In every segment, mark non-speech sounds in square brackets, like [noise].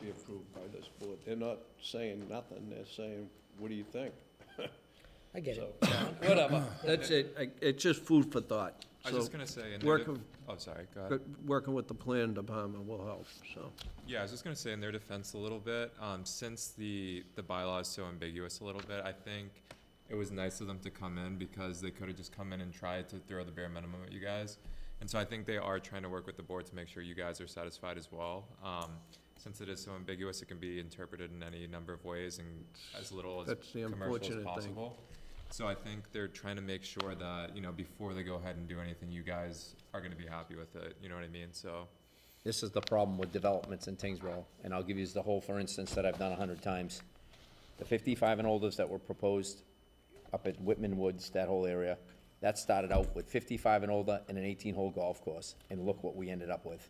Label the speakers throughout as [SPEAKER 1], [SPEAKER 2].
[SPEAKER 1] be approved by this board. They're not saying nothing, they're saying, what do you think?
[SPEAKER 2] I
[SPEAKER 3] [coughs]
[SPEAKER 2] get
[SPEAKER 1] So,
[SPEAKER 2] it.
[SPEAKER 1] whatever.
[SPEAKER 3] That's it, I- it's just food for thought.
[SPEAKER 4] I was just
[SPEAKER 3] So,
[SPEAKER 4] gonna say, and
[SPEAKER 3] work
[SPEAKER 4] their, de-
[SPEAKER 3] of-
[SPEAKER 4] oh, sorry, go ahead.
[SPEAKER 3] but Working with the plan department will help, so.
[SPEAKER 4] Yeah, I was just gonna say in their defense a little bit, um, since the, the bylaw is so ambiguous a little bit, I think it was nice of them to come in because they could have just come in and tried to throw the bare minimum at you guys. And so I think they are trying to work with the board to make sure you guys are satisfied as well. Um, since it is so ambiguous, it can be interpreted in any number of ways and as little as
[SPEAKER 3] That's the
[SPEAKER 4] commercial as
[SPEAKER 3] unfortunate thing.
[SPEAKER 4] possible. So I think they're trying to make sure that, you know, before they go ahead and do anything, you guys are gonna be happy with it, you know what I mean? So,
[SPEAKER 5] This is the problem with developments in Tingsboro, and I'll give you the whole, for instance, that I've done a hundred times. The fifty-five and olders that were proposed up at Whitman Woods, that whole area, that started out with fifty-five and older and an eighteen-hole golf course, and look what we ended up with.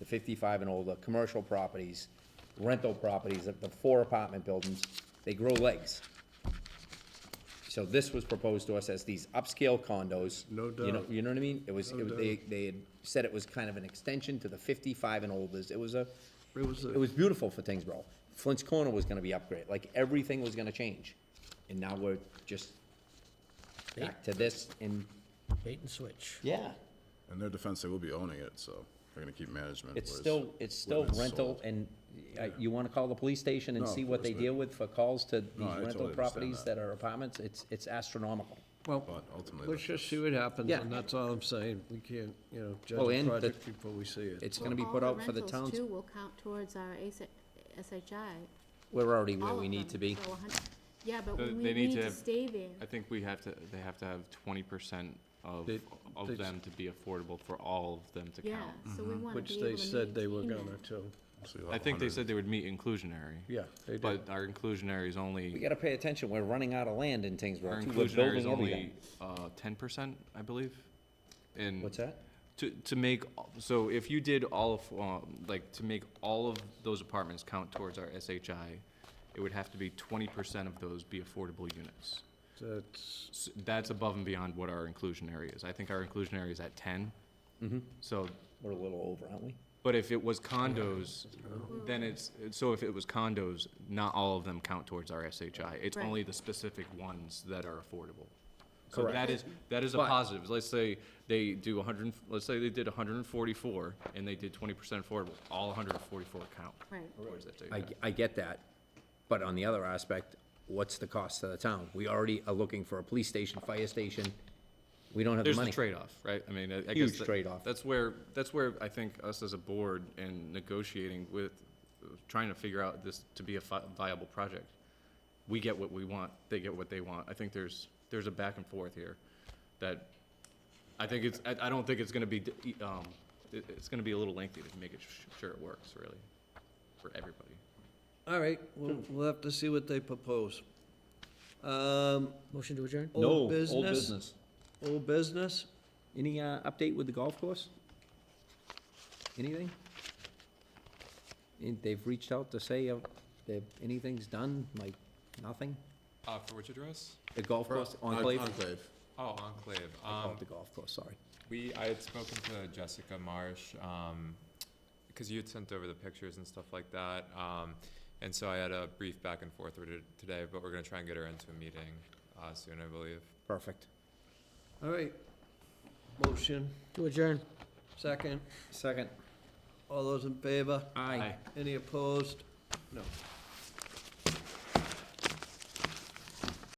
[SPEAKER 5] The fifty-five and older, commercial properties, rental properties, the- the four apartment buildings, they grow legs. So this was proposed to us as these upscale condos.
[SPEAKER 3] No
[SPEAKER 5] you know-
[SPEAKER 3] doubt.
[SPEAKER 5] You know what I mean? It was, it was,
[SPEAKER 3] No
[SPEAKER 5] they, they had said it was kind of an extension to the fifty-five and olders. It was a,
[SPEAKER 3] It was a-
[SPEAKER 5] it was beautiful for Tingsboro. Flint's Corner was gonna be upgraded, like, everything was gonna change. And now we're just back to this and,
[SPEAKER 2] Bait and switch.
[SPEAKER 5] yeah,
[SPEAKER 6] In their defense, they will be owning it, so they're gonna keep management.
[SPEAKER 5] it's
[SPEAKER 6] whereas
[SPEAKER 5] still, it's still
[SPEAKER 6] when it's
[SPEAKER 5] rental
[SPEAKER 6] sold.
[SPEAKER 5] and, uh, you wanna call the police station and
[SPEAKER 6] No,
[SPEAKER 5] see
[SPEAKER 6] of
[SPEAKER 5] what they
[SPEAKER 6] course,
[SPEAKER 5] deal with for calls to
[SPEAKER 6] I
[SPEAKER 5] these
[SPEAKER 6] totally
[SPEAKER 5] rental
[SPEAKER 6] understand
[SPEAKER 5] properties
[SPEAKER 6] that.
[SPEAKER 5] that are apartments? It's, it's astronomical.
[SPEAKER 3] Well,
[SPEAKER 6] But ultimately,
[SPEAKER 3] let's
[SPEAKER 6] that's-
[SPEAKER 3] just see what happens,
[SPEAKER 5] Yeah.
[SPEAKER 3] and that's all I'm saying. We can't, you know, judge
[SPEAKER 5] Well, and
[SPEAKER 3] a
[SPEAKER 5] the-
[SPEAKER 3] project before we see Oh, it.
[SPEAKER 5] It's gonna be put out for the
[SPEAKER 7] All the rentals
[SPEAKER 5] towns.
[SPEAKER 7] too will count towards our SHI.
[SPEAKER 5] We're already
[SPEAKER 7] all
[SPEAKER 5] where we
[SPEAKER 7] of
[SPEAKER 5] need
[SPEAKER 7] them.
[SPEAKER 5] to be.
[SPEAKER 7] Oh, So a hun- Yeah, but
[SPEAKER 8] So
[SPEAKER 7] we
[SPEAKER 8] they need
[SPEAKER 7] need
[SPEAKER 8] to
[SPEAKER 7] to
[SPEAKER 8] have-
[SPEAKER 7] stay there.
[SPEAKER 8] I think we have to, they have to have twenty percent of,
[SPEAKER 3] They- they-
[SPEAKER 8] of them to be affordable for all of them to
[SPEAKER 7] Yeah,
[SPEAKER 8] count.
[SPEAKER 7] so
[SPEAKER 5] Mm-hmm.
[SPEAKER 7] we want to
[SPEAKER 3] Which
[SPEAKER 7] be able to
[SPEAKER 3] they said they were
[SPEAKER 7] maintain
[SPEAKER 3] gonna
[SPEAKER 7] that.
[SPEAKER 3] too.
[SPEAKER 6] so you'll
[SPEAKER 8] I
[SPEAKER 6] have
[SPEAKER 8] think they
[SPEAKER 6] 100
[SPEAKER 8] said they would meet inclusionary.
[SPEAKER 3] Yeah, they did.
[SPEAKER 8] But our inclusionary is
[SPEAKER 5] We
[SPEAKER 8] only,
[SPEAKER 5] gotta pay attention, we're running out of land in
[SPEAKER 8] our
[SPEAKER 5] Tingsboro, too. we're
[SPEAKER 8] inclusionary is
[SPEAKER 5] building everything.
[SPEAKER 8] only, uh, ten percent, I believe. And
[SPEAKER 5] What's that?
[SPEAKER 8] to, to make, all- so if you did all of, um, like, to make all of those apartments count towards our SHI, it would have to be twenty percent of those be affordable units.
[SPEAKER 3] That's,
[SPEAKER 8] S- That's above and beyond what our inclusionary is. I think our inclusionary is at 10
[SPEAKER 5] Mm-hmm.
[SPEAKER 8] So
[SPEAKER 5] We're a little over, aren't we?
[SPEAKER 8] But if it was condos, then it's, so if it was condos, not all of them count towards our SHI. It's
[SPEAKER 7] Right.
[SPEAKER 8] only the specific ones that are affordable. So that is, that is a
[SPEAKER 5] But-
[SPEAKER 8] positive. Let's say they do hundred, let's say they did hundred and forty-four and they did twenty percent affordable, all hundred and forty-four count
[SPEAKER 7] Right.
[SPEAKER 8] towards that.
[SPEAKER 5] I, I get that, but on the other aspect, what's the cost to the town? We already are looking for a police station, fire station, we don't have the
[SPEAKER 8] There's
[SPEAKER 5] money.
[SPEAKER 8] the trade-off, right? I mean, I I guess.
[SPEAKER 5] Huge
[SPEAKER 8] that-
[SPEAKER 5] trade-off.
[SPEAKER 8] That's where, that's where I think us as a board and negotiating with, trying to figure out this to be a fi- viable project. We get what we want, they get what they want. I think there's, there's a back and forth here that, I think it's, I, I don't think it's gonna be, d- um, it, it's gonna be a little lengthy to make it sh- sure it works, really, for everybody.
[SPEAKER 3] all right, we'll, we'll have to see what they propose. Um,
[SPEAKER 2] Motion to adjourn?
[SPEAKER 3] No, old business, old business?
[SPEAKER 5] Any, uh, update with the golf course? Anything? And They've reached out to say, uh, that anything's done, like, nothing?
[SPEAKER 4] Uh, for which address?
[SPEAKER 5] The golf course
[SPEAKER 6] Uh,
[SPEAKER 5] enclave?
[SPEAKER 6] Enclave.
[SPEAKER 4] Oh, Enclave.
[SPEAKER 5] Oh,
[SPEAKER 4] Um,
[SPEAKER 5] the golf course, sorry.
[SPEAKER 4] we, I had spoken to Jessica Marsh, um, because you had sent over the pictures and stuff like that. Um, and so I had a brief back and forth with her today, but we're gonna try and get her into a meeting, uh, soon, I believe.
[SPEAKER 5] Perfect.
[SPEAKER 3] All right. Motion,
[SPEAKER 2] To adjourn.
[SPEAKER 3] second.
[SPEAKER 5] Second.
[SPEAKER 3] All those in favor?
[SPEAKER 5] Aye.
[SPEAKER 3] Any opposed? No.